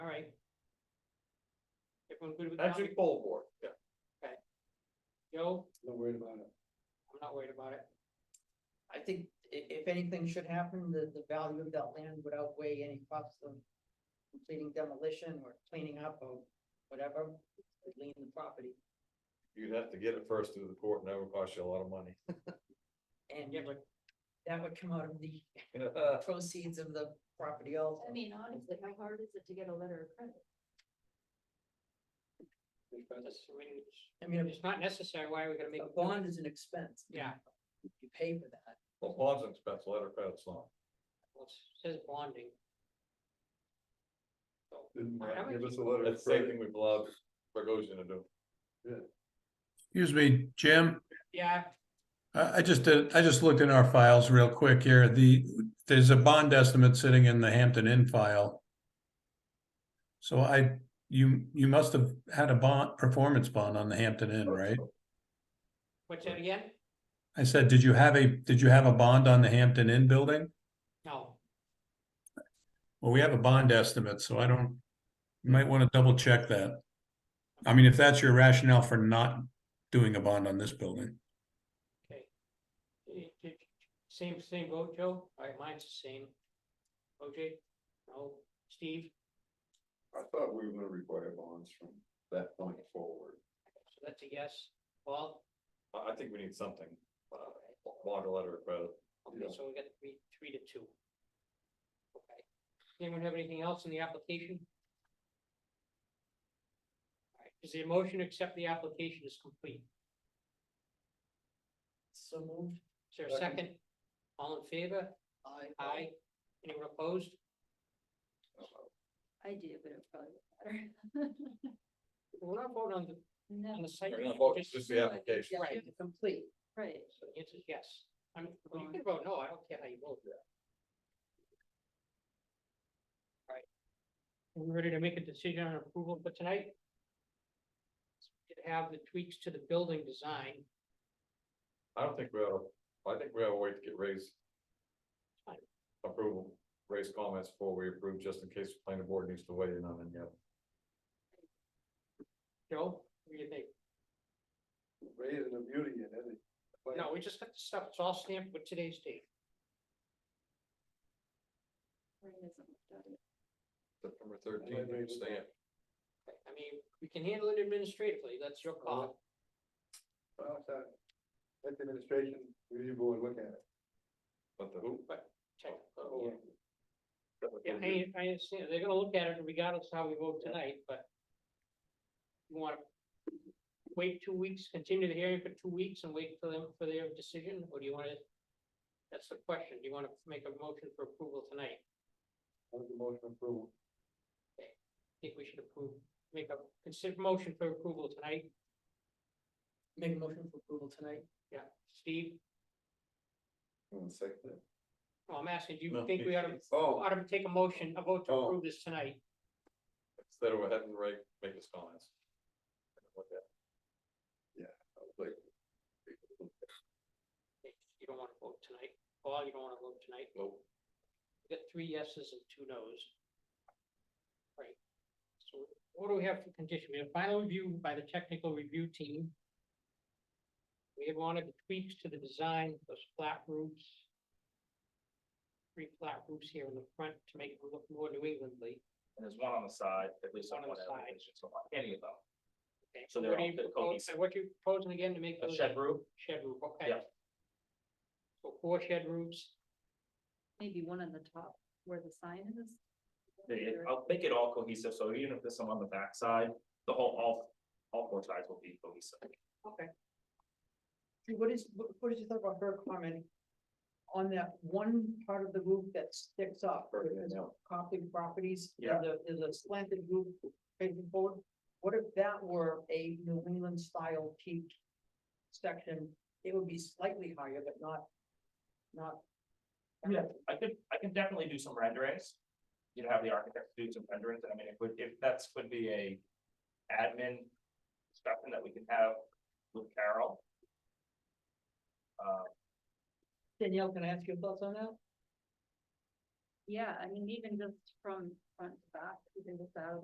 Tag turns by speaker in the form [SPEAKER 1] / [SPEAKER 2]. [SPEAKER 1] everyone good with that?
[SPEAKER 2] Patrick Bowlboard, yeah.
[SPEAKER 1] Joe,
[SPEAKER 3] Not worried about it.
[SPEAKER 1] I'm not worried about it.
[SPEAKER 4] I think i- if anything should happen, the, the value of that land would outweigh any cost of completing demolition or cleaning up or whatever, lean the property.
[SPEAKER 2] You'd have to get it first through the court and that would cost you a lot of money.
[SPEAKER 4] And
[SPEAKER 1] Yeah, Uh, but
[SPEAKER 4] that would come out of the proceeds of the property also.
[SPEAKER 5] I mean, honestly, how hard is it to get a letter of credit?
[SPEAKER 1] that's- I mean, it's-
[SPEAKER 4] I mean,
[SPEAKER 1] it's not necessary. Why are we gonna
[SPEAKER 4] a
[SPEAKER 1] make?
[SPEAKER 4] bond is an expense.
[SPEAKER 1] Yeah.
[SPEAKER 4] You pay for that.
[SPEAKER 2] Well, bonds and expense, letter of credit's not.
[SPEAKER 1] Well, it Says bonding. So,
[SPEAKER 3] Didn't
[SPEAKER 1] I
[SPEAKER 3] Matt
[SPEAKER 1] would
[SPEAKER 3] give
[SPEAKER 1] ju-
[SPEAKER 3] us a letter
[SPEAKER 2] That's
[SPEAKER 3] of
[SPEAKER 2] the same
[SPEAKER 3] credit.
[SPEAKER 2] thing we've allowed Bogosian to do.
[SPEAKER 6] Excuse me, Jim,
[SPEAKER 1] yeah,
[SPEAKER 6] I, I just did, I just looked in our files real quick here, the, there's a bond estimate sitting in the Hampton Inn file. So I, you, you must have had a bond, performance bond on the Hampton Inn, right?
[SPEAKER 1] what's that again?
[SPEAKER 6] I said, did you have a, did you have a bond on the Hampton Inn building?
[SPEAKER 1] No,
[SPEAKER 6] Well, we have a bond estimate, so I don't, you might want to double check that. I mean, if that's your rationale for not doing a bond on this building.
[SPEAKER 1] okay. Eh, eh, Same, same vote, Joe? All right, mine's the same. OJ? No. Steve?
[SPEAKER 3] I thought we were gonna require bonds from that point forward.
[SPEAKER 1] So that's a yes. Paul?
[SPEAKER 2] I, I think we need something, uh, bond or letter of credit.
[SPEAKER 1] Okay,
[SPEAKER 3] Yeah.
[SPEAKER 1] so we got three, three to two. Okay. Anyone have anything else in the application? All right, Is the motion to accept the application is complete?
[SPEAKER 4] So moved.
[SPEAKER 1] Is there a second? All in favor?
[SPEAKER 4] I.
[SPEAKER 1] Aye. Anyone opposed?
[SPEAKER 5] I do, but it probably won't
[SPEAKER 1] We're not voting on the,
[SPEAKER 5] matter.
[SPEAKER 1] on
[SPEAKER 5] No,
[SPEAKER 1] the site.
[SPEAKER 2] We're
[SPEAKER 1] plan,
[SPEAKER 2] not voting,
[SPEAKER 1] just-
[SPEAKER 2] just the application.
[SPEAKER 4] Yeah,
[SPEAKER 1] Right.
[SPEAKER 4] Complete.
[SPEAKER 5] right.
[SPEAKER 1] So the answer is yes. I mean, well, you can vote no, I don't care how you vote. Right. Are we ready to make a decision on approval for tonight? Did Have the tweaks to the building design.
[SPEAKER 2] I don't think we ought to, I think we ought to wait to get Ray's
[SPEAKER 1] Fine.
[SPEAKER 2] approval, Ray's comments before we approve, just in case the planning board needs to weigh in on it yet.
[SPEAKER 1] Joe, what do you think?
[SPEAKER 3] Raising the beauty in it. But-
[SPEAKER 1] No, we just got the stuff, it's all stamped with today's date.
[SPEAKER 5] Right, it doesn't look that way.
[SPEAKER 2] September thirteenth, stamp.
[SPEAKER 1] I mean, we can handle it administratively, that's your call.
[SPEAKER 3] Well, it's, uh, Let the administration, review board look at it.
[SPEAKER 2] But the who?
[SPEAKER 1] Check.
[SPEAKER 3] Oh,
[SPEAKER 1] Yeah, I, I understand, they're gonna look at it regardless of how we vote tonight, but. You wanna wait two weeks, continue the hearing for two weeks and wait for them for their decision, or do you wanna? That's the question, do you wanna make a motion for approval tonight?
[SPEAKER 3] That was the motion approval.
[SPEAKER 1] I think we should approve, make a consider motion for approval tonight,
[SPEAKER 4] Make a motion for approval tonight.
[SPEAKER 1] yeah, Steve,
[SPEAKER 3] One second.
[SPEAKER 1] oh, I'm asking, do you
[SPEAKER 2] No,
[SPEAKER 1] think we ought to,
[SPEAKER 3] Oh,
[SPEAKER 1] ought to take a motion, a vote to
[SPEAKER 3] Oh.
[SPEAKER 1] approve this tonight?
[SPEAKER 2] Instead of having Ray make his comments.
[SPEAKER 3] like,
[SPEAKER 1] You don't wanna vote tonight, Paul, you don't wanna vote tonight?
[SPEAKER 2] Nope.
[SPEAKER 1] We got three yeses and two noes. Right, so what do we have for condition? We have final review by the technical review team. We have wanted the tweaks to the design, those flat roofs. Three flat roofs here in the front to make it look more New Englandly.
[SPEAKER 7] And there's one on the side, at least on
[SPEAKER 1] One on
[SPEAKER 7] one
[SPEAKER 1] the side.
[SPEAKER 7] elevation, so on any of them.
[SPEAKER 1] Okay,
[SPEAKER 7] So they're
[SPEAKER 1] what are
[SPEAKER 7] all
[SPEAKER 1] you
[SPEAKER 7] fit
[SPEAKER 1] propos-
[SPEAKER 7] cohesive.
[SPEAKER 1] What you proposing again to make?
[SPEAKER 7] A
[SPEAKER 1] those
[SPEAKER 7] shed roof,
[SPEAKER 1] Shed roof, okay.
[SPEAKER 7] Yeah.
[SPEAKER 1] So four shed roofs,
[SPEAKER 5] Maybe one on the top where the sign is.
[SPEAKER 7] they- I'll make it all cohesive, so even if there's some on the backside, the whole, all, all four sides will be cohesive.
[SPEAKER 1] okay.
[SPEAKER 4] Drew, What is, what what is your thought about her comment? On that one part of the roof that sticks up, where there's Copley properties, you know, the- there's a slanted roof facing forward. What if that were a New England style peak section? It would be slightly higher, but not, not.
[SPEAKER 7] Yeah, I could, I can definitely do some renderings. You'd have the architect do some renderings, I mean, it would, if that's would be a admin discussion that we can have with Carol. Uh,
[SPEAKER 4] Danielle, can I ask your thoughts on that?
[SPEAKER 5] Yeah, I mean, even just from front to back, even just out of